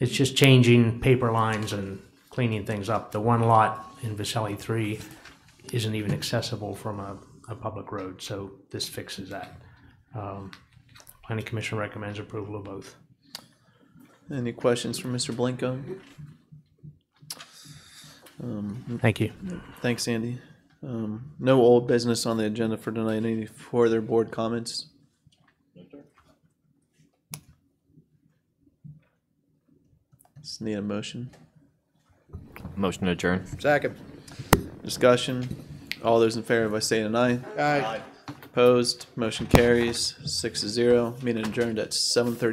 It's just changing paper lines and cleaning things up. The one lot in Vicelli three isn't even accessible from a, a public road, so this fixes that. Um, Planning commission recommends approval of both. Any questions for Mr. Blanco? Thank you. Thanks, Andy. Um, no old business on the agenda for tonight. Any further board comments? Just need a motion. Motion to adjourn. Second. Discussion. All those in favor, if I say an aye. Aye. Opposed, motion carries six to zero. Meeting adjourned at seven thirty.